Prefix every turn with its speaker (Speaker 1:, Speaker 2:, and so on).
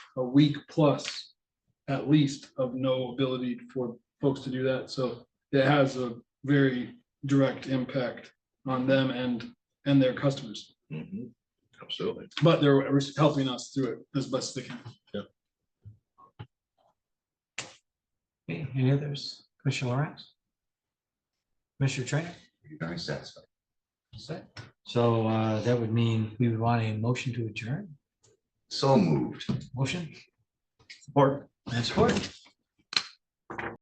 Speaker 1: a week plus at least of no ability for folks to do that. So it has a very direct impact on them and, and their customers.
Speaker 2: Mhm. Absolutely.
Speaker 1: But they're helping us through it as best they can.
Speaker 3: Okay, Any others? Commissioner Lawrence? Commissioner Trainer?
Speaker 2: You're Very satisfied.
Speaker 3: Set. So uh, that would mean we would want a motion to adjourn.
Speaker 2: So moved.
Speaker 3: Motion
Speaker 2: Support.
Speaker 3: and support.